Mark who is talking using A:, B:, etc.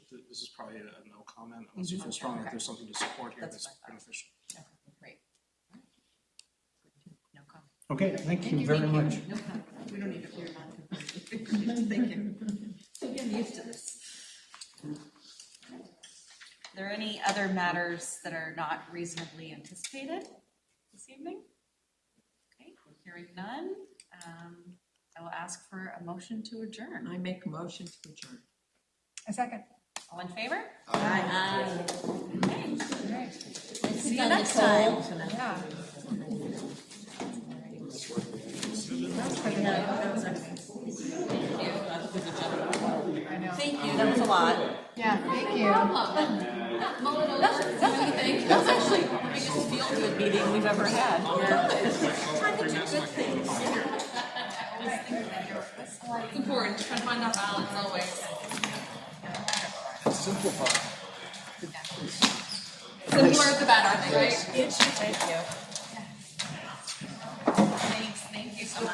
A: this is probably a a no comment unless you
B: Mhm.
A: feel
B: Okay,
A: strongly
B: okay.
A: that there's something to support here
B: That's
A: that's
B: what I
A: beneficial.
B: Okay, great. No comment.
C: Okay, thank you very much.
B: No comment. We don't need to worry about it. Thank you. We're getting used to this.
D: Are there any other matters that are not reasonably anticipated this evening? Okay, hearing none, um, I will ask for a motion to adjourn.
B: I make a motion to adjourn.
E: A second.
D: All in favor?
B: Aye.
D: Okay.
B: See you next time.
E: Yeah.
D: Thank you, that was a lot.
E: Yeah, thank you.
B: That's, that's a good thing. That's actually the biggest feel-good meeting we've ever had.
F: It's important, trying to find that balance always. Simplify. The more the better, I think, right?
E: Thank you.